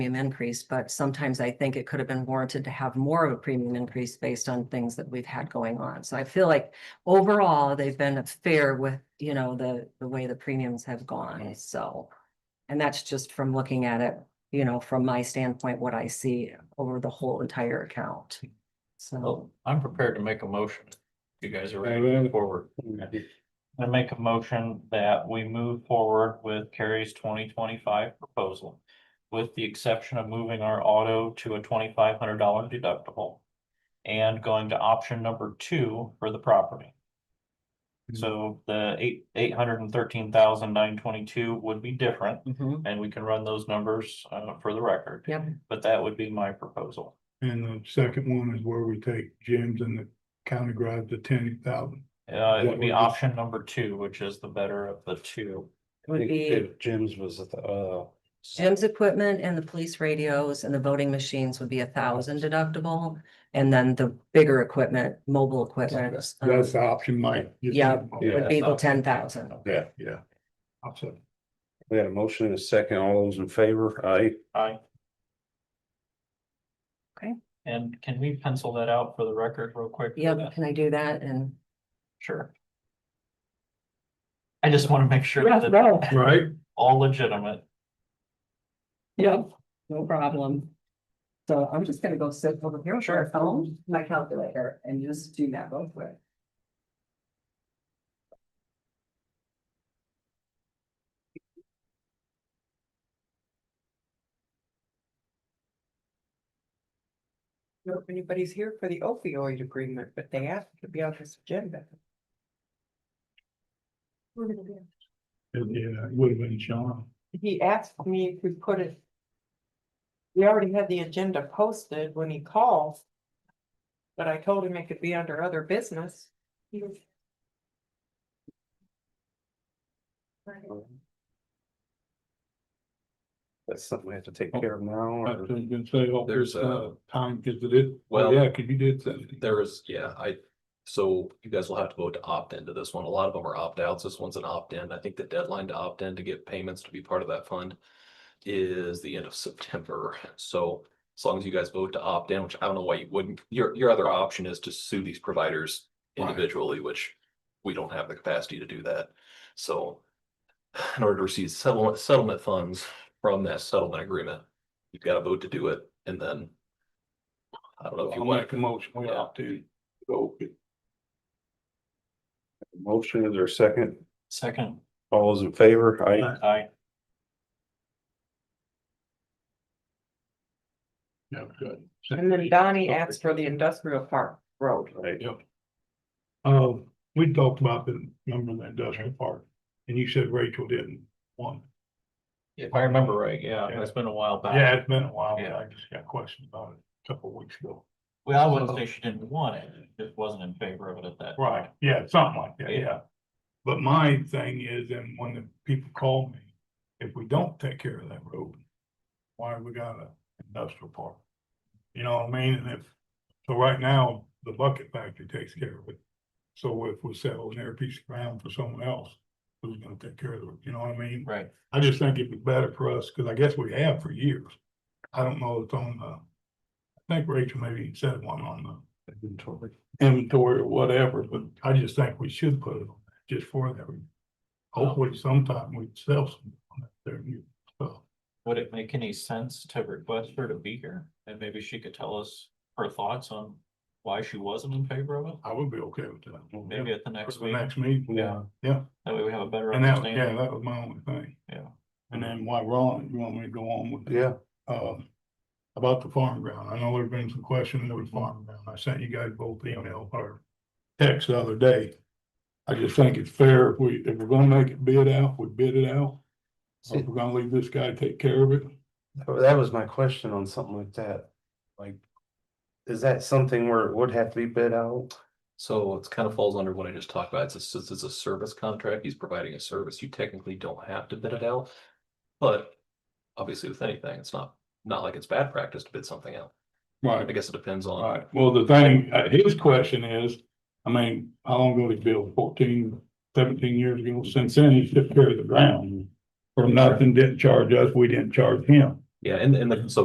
premium increase, but sometimes I think it could have been warranted to have more of a premium increase based on things that we've had going on. So I feel like overall, they've been fair with, you know, the, the way the premiums have gone, so. And that's just from looking at it, you know, from my standpoint, what I see over the whole entire account. So, Oh. Well, I'm prepared to make a motion. if You guys are Yeah, ready to really. move forward. Hmm. I make a motion that we move forward with Carrie's twenty twenty-five proposal. With the exception of moving our auto to a twenty-five hundred dollar deductible. And going to option number two for the property. So the eight, eight hundred and thirteen thousand nine twenty-two would be different, mhm, and we can run those numbers, uh, for the record. Yep. But that would be my proposal. And the second one is where we take Jim's and the county garage to ten thousand. Uh, it What would be would- option number two, which is the better of the two. would be Jim's was at the, uh. Jim's equipment and the police radios and the voting machines would be a thousand deductible. And then the bigger equipment, mobile equipment. um, That's the option, Mike. You Yeah. said- Would Yeah. be the ten thousand. Yeah, Yeah. I'll say. we had a motion and a second. All those in favor? Aye. Aye. Okay. And can we pencil that out for the record real quick? for Yep, that? can I do that? And Sure. I just want to make sure Yeah, that no. it's Right? all legitimate. Yep, no problem. So I'm just gonna go sit over here with my phone, my calculator, and just do that real quick. know if anybody's here for the opioid agreement, but they asked to be on this agenda. Yeah, it uh, would have been Sean. He asked me if we put it. We already had the agenda posted when he called. But I told him it could be under other business. That's something we have to take care of now. or- I was gonna say, oh, There's there's a- uh time, cause it is, well, Well- yeah, cause you did say. There is, yeah, I, so you guys will have to vote to opt into this one. A lot of them are opt outs. This one's an opt in. I think the deadline to opt in to get payments to be part of that fund is the end of September. So as long as you guys vote to opt in, which I don't know why you wouldn't, your, your other option is to sue these providers Right. individually, which we don't have the capacity to do that. So in order to receive settlement, settlement funds from that settlement agreement, you've got to vote to do it and then I don't know if you I'll want. make a motion, we ought to go. Motion is there a second? Second, All those in favor? Aye. Aye. I, Yeah, good. And then Donnie asked for the industrial park road. Right. Uh, we talked about the number of the industrial park, and you said Rachel didn't want. if I remember right, yeah, it's been a while back. Yeah, it's been a while, but Yeah. I just got questions about it a couple of weeks ago. Well, I wouldn't say she didn't want it, just wasn't in favor of it at that. Right, yeah, something like that, Yeah. yeah. But my thing is, and when the people call me, if we don't take care of that road, why we got a industrial park? You know what I mean? And if, so right now, the bucket factory takes care of it. So if we sell an air piece of ground for someone else, who's gonna take care of it, you know what I mean? Right, I just think it'd be better for us, cause I guess we have for years. I don't know if it's on the, I think Rachel maybe said one on the inventory or whatever, but I just think we should put it on that, just for that. reason. Hopefully sometime we sell some on that there new stuff. would it make any sense to request her to be here? And maybe she could tell us her thoughts on why she wasn't in favor of it, I would be okay with that. maybe at the For next the meeting. next meeting, Yeah. yeah, That way we have a better and that, yeah, understanding. that was my only thing. Yeah. And then why Ron, you want me to go on with? Yeah, um, about the farm ground. I know there's been some question over the farm ground. I sent you guys both email or text the other day. I just think it's fair if we, if we're gonna make it bid out, we bid it out. Or If we're gonna leave this guy take care of it, that was my question on something like that. Like, is that something where it would have to be bid out? So it's kind of falls under what I just talked about. It's a, since it's a service contract. He's providing a service. You technically don't have to bid it out. But obviously with anything, it's not, not like it's bad practice to bid something out. I right, guess it depends on, right. Well, the thing, uh, his question is, I mean, how long ago did he build? 14, 17 years ago? Since then, he took care of the ground. For nothing, didn't charge us, we didn't charge him. Yeah, and, and the- so